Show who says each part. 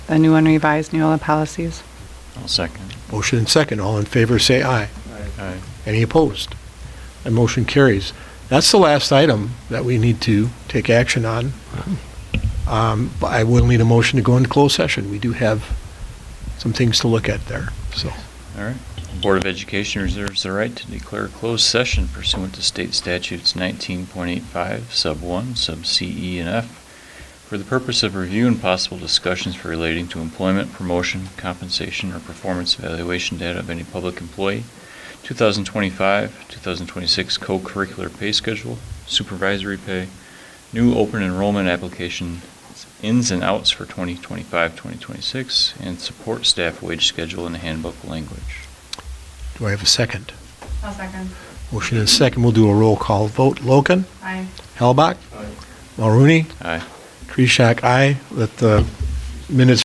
Speaker 1: the new and revised Neola policies.
Speaker 2: I'll second.
Speaker 3: Motion and second, all in favor, say aye.
Speaker 2: Aye.
Speaker 3: Any opposed? That motion carries. That's the last item that we need to take action on. Um, but I will need a motion to go into closed session. We do have some things to look at there, so.
Speaker 2: All right. Board of Education reserves the right to declare closed session pursuant to state statutes 19.85, sub 1, sub C, E, and F, for the purpose of review and possible discussions relating to employment, promotion, compensation, or performance evaluation data of any public employee, 2025, 2026 co-curricular pay schedule, supervisory pay, new open enrollment application ins and outs for 2025, 2026, and support staff wage schedule and handbook language.
Speaker 3: Do I have a second?
Speaker 1: I'll second.
Speaker 3: Motion and second, we'll do a roll call vote. Logan?
Speaker 1: Aye.
Speaker 3: Halbach? Mulrooney?
Speaker 2: Aye.
Speaker 3: Kreschak, aye. Let the minutes